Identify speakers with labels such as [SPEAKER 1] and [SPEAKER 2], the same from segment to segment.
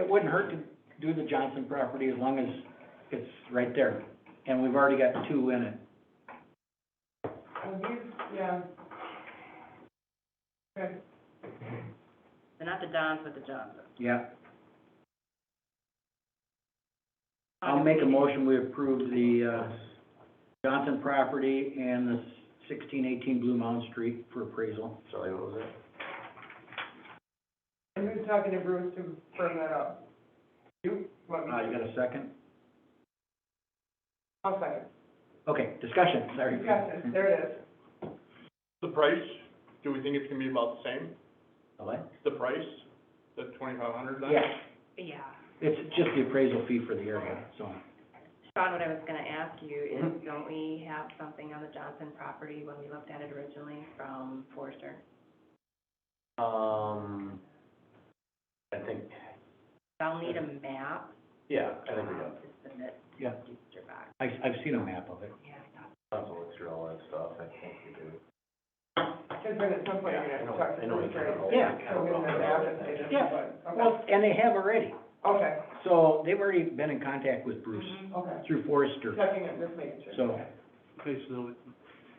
[SPEAKER 1] wouldn't hurt to do the Johnson property as long as it's right there, and we've already got two in it.
[SPEAKER 2] Well, he's, Oh, yeah. Okay,
[SPEAKER 3] They're not the Dons, but the Johnsons.
[SPEAKER 1] Yeah, I'll make a motion, we approve the, uh, Johnson property and the sixteen eighteen Blue Mountain Street for appraisal.
[SPEAKER 4] Charlie, what was
[SPEAKER 2] and who's talking to Bruce to firm that up? You, what,
[SPEAKER 1] Uh, you
[SPEAKER 2] me?
[SPEAKER 1] got a second?
[SPEAKER 2] I'll second.
[SPEAKER 1] Okay, discussion, sorry.
[SPEAKER 2] You got this, there it is.
[SPEAKER 5] The price, do we think it's gonna be about the same,
[SPEAKER 1] The what?
[SPEAKER 5] the price, the twenty-five hundred then?
[SPEAKER 1] Yeah,
[SPEAKER 3] Yeah.
[SPEAKER 1] it's just the appraisal fee for the area, so.
[SPEAKER 3] Sean, what I was gonna ask you is, don't we have something on the Johnson property when we looked at it originally from Forster?
[SPEAKER 4] it? Um, I think,
[SPEAKER 3] I'll need a map.
[SPEAKER 4] yeah, I think we got,
[SPEAKER 3] um, To submit to
[SPEAKER 1] Yeah.
[SPEAKER 3] Duster back.
[SPEAKER 1] I, I've seen a map of it.
[SPEAKER 3] Yeah, I thought-
[SPEAKER 4] I'll have to look through all that stuff, I think we do.
[SPEAKER 2] Because then at some point, you're gonna talk
[SPEAKER 4] I
[SPEAKER 2] to
[SPEAKER 4] know
[SPEAKER 2] Bruce,
[SPEAKER 4] we kind of
[SPEAKER 2] right?
[SPEAKER 4] all-
[SPEAKER 1] Yeah.
[SPEAKER 4] kind
[SPEAKER 2] So
[SPEAKER 4] of
[SPEAKER 2] we're
[SPEAKER 4] all-
[SPEAKER 2] gonna have to say this,
[SPEAKER 1] Yeah.
[SPEAKER 2] but, okay,
[SPEAKER 1] Well, and they have already,
[SPEAKER 2] okay,
[SPEAKER 1] so they've already been in contact with Bruce
[SPEAKER 3] Mm-hmm.
[SPEAKER 2] okay.
[SPEAKER 1] through Forrester,
[SPEAKER 2] Checking it, just making sure.
[SPEAKER 1] so.
[SPEAKER 6] Okay, so,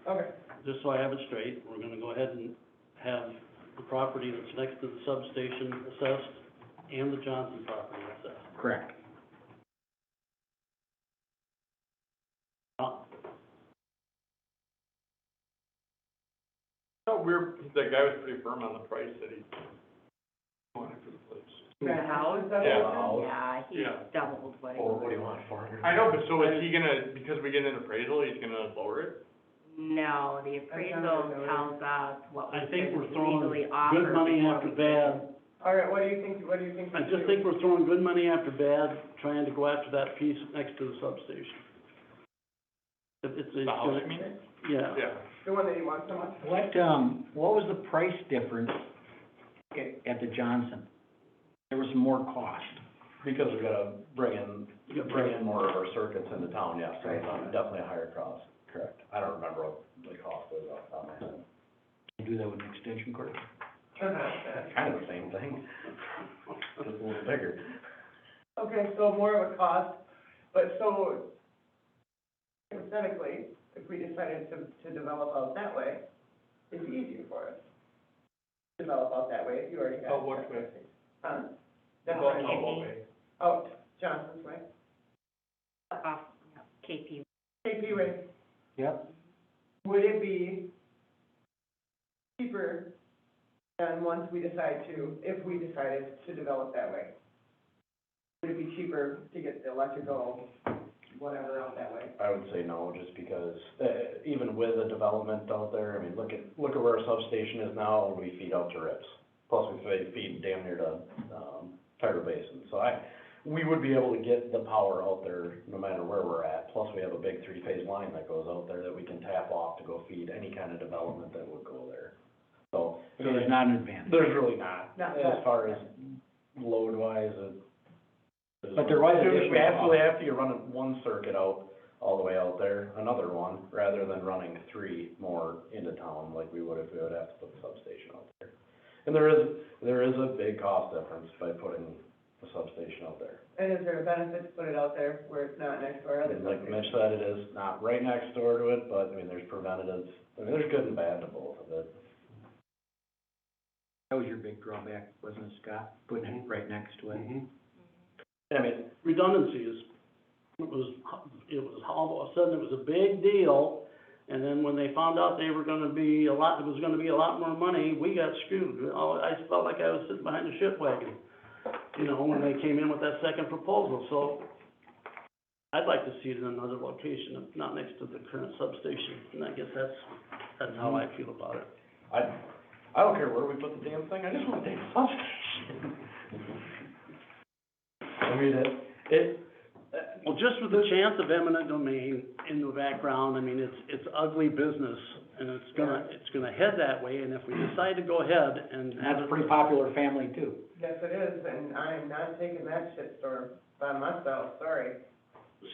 [SPEAKER 2] Okay,
[SPEAKER 6] just so I have it straight, we're gonna go ahead and have the property that's next to the substation assessed and the Johnson property assessed.
[SPEAKER 1] Correct.
[SPEAKER 6] Uh,
[SPEAKER 5] No, we're, that guy was pretty firm on the price that he wanted for the place.
[SPEAKER 3] The house?
[SPEAKER 5] Yeah.
[SPEAKER 3] Yeah, he
[SPEAKER 5] Yeah.
[SPEAKER 3] doubled what it
[SPEAKER 4] Well, Oh, what
[SPEAKER 3] was.
[SPEAKER 4] do you want, four hundred?
[SPEAKER 5] I know, but so is he gonna, because we get an appraisal, he's gonna lower it?
[SPEAKER 3] No, the appraisal tells us what
[SPEAKER 6] I
[SPEAKER 3] was
[SPEAKER 6] think we're throwing
[SPEAKER 3] legally offered.
[SPEAKER 6] good money
[SPEAKER 3] before
[SPEAKER 6] after
[SPEAKER 3] we-
[SPEAKER 6] bad.
[SPEAKER 2] all right, what do you think, what do you think? we
[SPEAKER 6] I
[SPEAKER 2] do?
[SPEAKER 6] just think we're throwing good money after bad, trying to go after that piece next to the substation. It- It's,
[SPEAKER 5] The
[SPEAKER 6] it's
[SPEAKER 5] house,
[SPEAKER 6] gonna-
[SPEAKER 5] I mean?
[SPEAKER 6] yeah.
[SPEAKER 5] Yeah.
[SPEAKER 2] The one that you want so much?
[SPEAKER 1] What, um, what was the price difference at, at the Johnson? There was more cost.
[SPEAKER 4] Because we gotta bring in,
[SPEAKER 6] You got-
[SPEAKER 4] bring in more of our circuits into town, yeah, so it's not- definitely a higher cost, correct. I don't remember what the cost was off the top of my head.
[SPEAKER 1] You do that with an extension cord?
[SPEAKER 4] Kind of the same thing, just a little bigger.
[SPEAKER 2] Okay, so more of a cost, but so hypothetically, if we decided to, to develop out that way, it's easier for us. Develop out that way, you already got.
[SPEAKER 5] Out what way?
[SPEAKER 2] Huh? Oh, That's
[SPEAKER 5] Well,
[SPEAKER 2] right,
[SPEAKER 5] no, what way?
[SPEAKER 2] out Johnson's way,
[SPEAKER 3] Off, yeah, KP.
[SPEAKER 2] KP way.
[SPEAKER 1] Yep.
[SPEAKER 2] Would it be cheaper than once we decide to, if we decided to develop that way? Would it be cheaper to get the electrical, whatever, out that way?
[SPEAKER 4] I would say no, just because, uh, even with the development out there, I mean, look at, look at where our substation is now, we feed out to rips. Plus, we fe- feed damn near to, um, Tiger Basin, so I, we would be able to get the power out there no matter where we're at. Plus, we have a big three-phase line that goes out there that we can tap off to go feed any kind of development that would go there. So,
[SPEAKER 1] So there's not an advantage.
[SPEAKER 4] there's really not,
[SPEAKER 2] Not
[SPEAKER 4] as
[SPEAKER 2] that-
[SPEAKER 4] far as load-wise, it. there's-
[SPEAKER 1] But there was
[SPEAKER 4] If you
[SPEAKER 1] additional
[SPEAKER 4] absolutely have to, you're running one circuit out, all the way out there, another one, rather than running three more into town like we would if we would have to put the substation out there. And there is, there is a big cost difference by putting the substation out there.
[SPEAKER 2] And is there a benefit to put it out there where it's not next to our other
[SPEAKER 4] And like
[SPEAKER 2] subdivision?
[SPEAKER 4] Mitch said, it is not right next door to it, but I mean, there's preventatives, I mean, there's good and bad to both of it.
[SPEAKER 1] That was your big drawback, wasn't it, Scott? Putting it right next to it.
[SPEAKER 4] I mean,
[SPEAKER 6] redundancies. It was, it was, all of a sudden, it was a big deal, and then when they found out they were gonna be a lot, it was gonna be a lot more money, we got screwed. Oh, I felt like I was sitting behind a ship wagon, you know, when they came in with that second proposal, so I'd like to see it in another location, if not next to the current substation, and I guess that's, that's how I feel about it.
[SPEAKER 4] I, I don't care where we put the damn thing, I just want the damn substation. I mean, it, it,
[SPEAKER 6] Well, just with the chance of eminent domain in the background, I mean, it's, it's ugly business, and it's gonna, it's gonna head that way, and if we decide to go ahead and.
[SPEAKER 1] And that's a pretty popular family too.
[SPEAKER 2] Yes, it is, and I'm not taking that shitstorm by myself, sorry.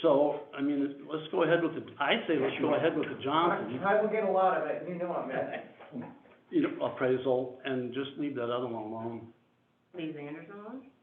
[SPEAKER 6] So, I mean, let's go ahead with the, I say let's go ahead with the Johnson,
[SPEAKER 2] I will get a lot of it, you know I'm at.
[SPEAKER 6] you know, appraisal, and just leave that other one alone.
[SPEAKER 3] Leave Anderson alone?